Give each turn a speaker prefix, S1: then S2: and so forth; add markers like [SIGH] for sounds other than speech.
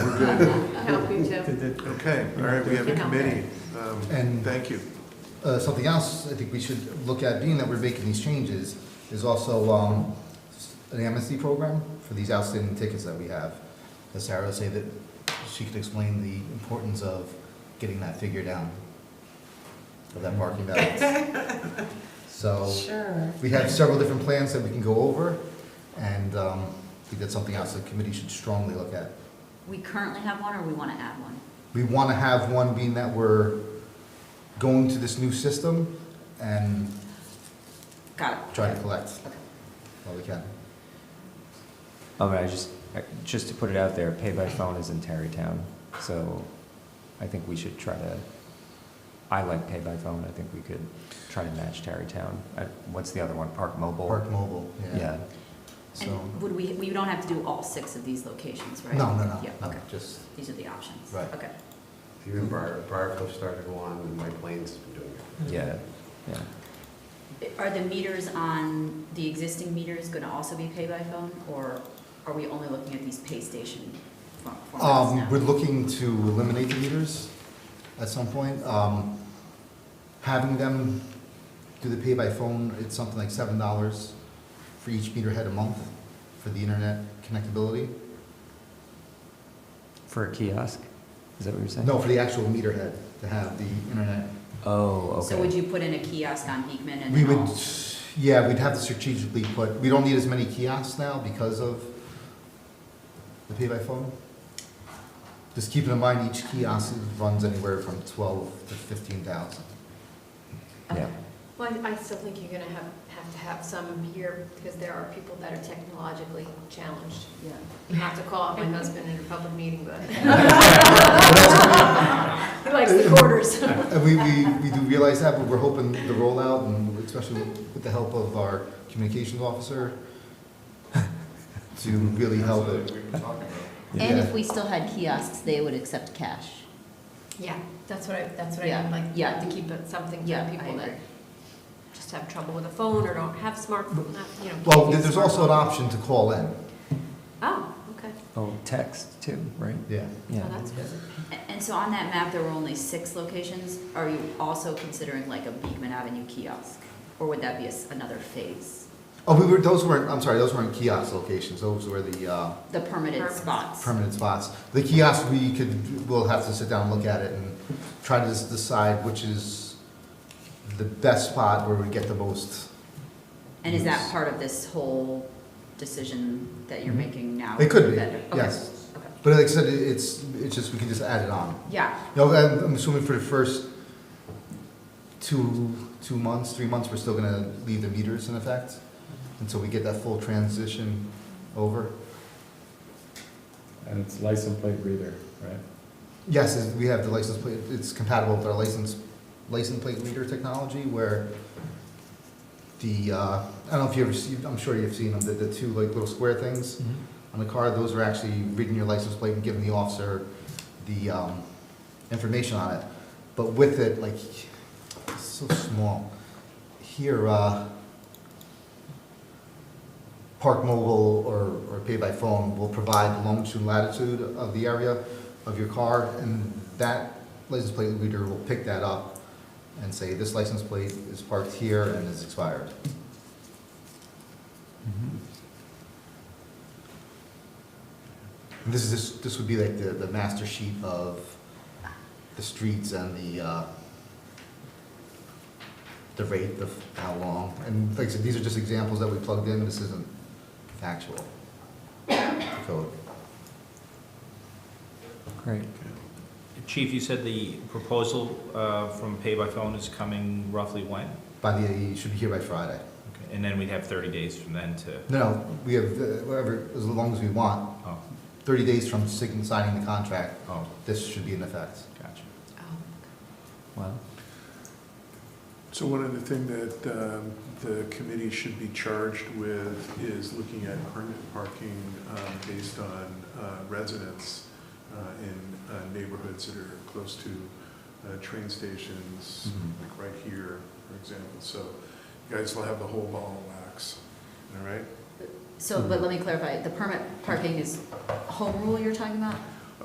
S1: Good.
S2: Help you too.
S1: Okay, all right, we have a committee. Um,
S3: And-
S1: Thank you.
S3: Uh, Something else I think we should look at, being that we're making these changes, is also um, an amnesty program for these outstanding tickets that we have. As Sarah would say that she could explain the importance of getting that figure down of that parking balance. [LAUGHS] So
S4: Sure.
S3: we have several different plans that we can go over, and um, I think that's something else the committee should strongly look at.
S5: We currently have one, or we want to add one?
S3: We want to have one being that we're going to this new system and
S5: Got it.
S3: try to collect while we can.
S6: Um, I just, I- just to put it out there, pay by phone is in Tarrytown, so I think we should try to, I like pay by phone, I think we could try to match Tarrytown. Uh, What's the other one, Park Mobile?
S3: Park mobile, yeah.
S6: Yeah,
S3: So,
S5: And would we, we don't have to do all six of these locations, right?
S3: no, no, no,
S5: Yeah,
S3: no,
S5: okay.
S3: just,
S5: These are the options.
S3: Right.
S5: Okay.
S7: Even Briar, Briarcliff started one, and Mike Lane's been doing it.
S6: yeah, yeah.
S5: Are the meters on, the existing meters going to also be pay by phone, or are we only looking at these pay station form- formats now?
S3: um, we're looking to eliminate the meters at some point. Um, having them do the pay by phone, it's something like seven dollars for each meter head a month for the internet connectability.
S6: For a kiosk, is that what you're saying?
S3: No, for the actual meter head to have the internet
S6: Oh, okay.
S5: So would you put in a kiosk on Beekman and
S3: We
S5: then
S3: would,
S5: all-
S3: yeah, we'd have to strategically put, we don't need as many kiosks now because of the pay by phone. Just keeping in mind, each kiosk runs anywhere from twelve to fifteen thousand.
S6: Yeah,
S2: Well, I- I still think you're gonna have, have to have some here, because there are people that are technologically challenged.
S3: [LAUGHS]
S5: Yeah.
S2: You have to call out [LAUGHS] my husband in a public meeting, but. [LAUGHS] He likes the
S3: [LAUGHS]
S2: quarters.
S3: And we, we, we do realize that, but we're hoping the rollout, and especially with the help of our communications officer, [LAUGHS] to really help it.
S8: And if
S3: Yeah.
S8: we still had kiosks, they would accept cash.
S2: Yeah, that's what I, that's what I
S8: Yeah,
S2: mean, like, you
S8: yeah.
S2: have to keep it something
S8: Yeah,
S2: for
S8: I
S2: people that
S8: agree.
S2: just have trouble with a phone or don't have smartphone, you know.
S3: Well,
S2: can't use
S3: there's also an
S2: smartphone.
S3: option to call in,
S2: Oh, okay,
S6: oh, text too, right?
S5: Oh,
S3: yeah.
S2: well,
S6: Yeah,
S2: that's good.
S5: A- And so on that map, there were only six locations. Are you also considering like a Beekman Avenue kiosk? Or would that be a s- another phase?
S3: Oh, we were, those weren't, I'm sorry, those weren't kiosk locations, those were the, uh,
S5: The permitted
S2: Permanent.
S5: spots?
S3: permanent spots. The kiosk, we could, we'll have to sit down, and look at it, and try to just decide which is the best spot where we get the most.
S5: And is that
S3: Yes.
S5: part of this whole decision that you're
S3: Mhm.
S5: making now?
S3: It could
S5: with
S3: be,
S5: the vendor? Okay,
S3: yes.
S5: okay.
S3: But like I said, it- it's, it's just, we can just add it on.
S5: Yeah,
S3: You know, I'm I'm assuming for the first two, two months, three months, we're still gonna leave the meters in effect until we get that full transition over.
S9: And it's license plate reader, right?
S3: Yes, is- we have the license plate, it's compatible with our license, license plate reader technology where the, uh, I don't know if you ever see, I'm sure you've seen them, the, the two like little square things on the car, those are actually reading your license plate and giving the officer the, um, information on it. But with it, like, it's so small. Here, uh, Park Mobile or, or Pay by Phone will provide longitude and latitude of the area of your car, and that license plate reader will pick that up and say, this license plate is parked here and is expired. And This is, this, this would be like the, the master sheet of the streets and the, uh, the rate of how long, and like I said, these are just examples that we plugged in, this isn't factual code.
S6: great.
S10: Chief, you said the proposal uh, from Pay by Phone is coming roughly when?
S3: By the, you should be here by Friday.
S10: Okay, And then we'd have 30 days from then to,
S3: No, no, we have, uh, whatever, as long as we want,
S10: oh,
S3: thirty days from sign- signing the contract,
S10: oh,
S3: this should be in effect.
S10: gotcha.
S2: Oh.
S6: Wow.
S1: So one other thing that um, the committee should be charged with is looking at permanent parking um, based on uh, residents uh, in uh, neighborhoods that are close to uh, train stations,
S3: Mhm.
S1: like right here, for example. So you guys will have the whole ball of wax, all right?
S3: Mm-hmm.
S5: so, but let me clarify, the permit parking is home rule you're talking about?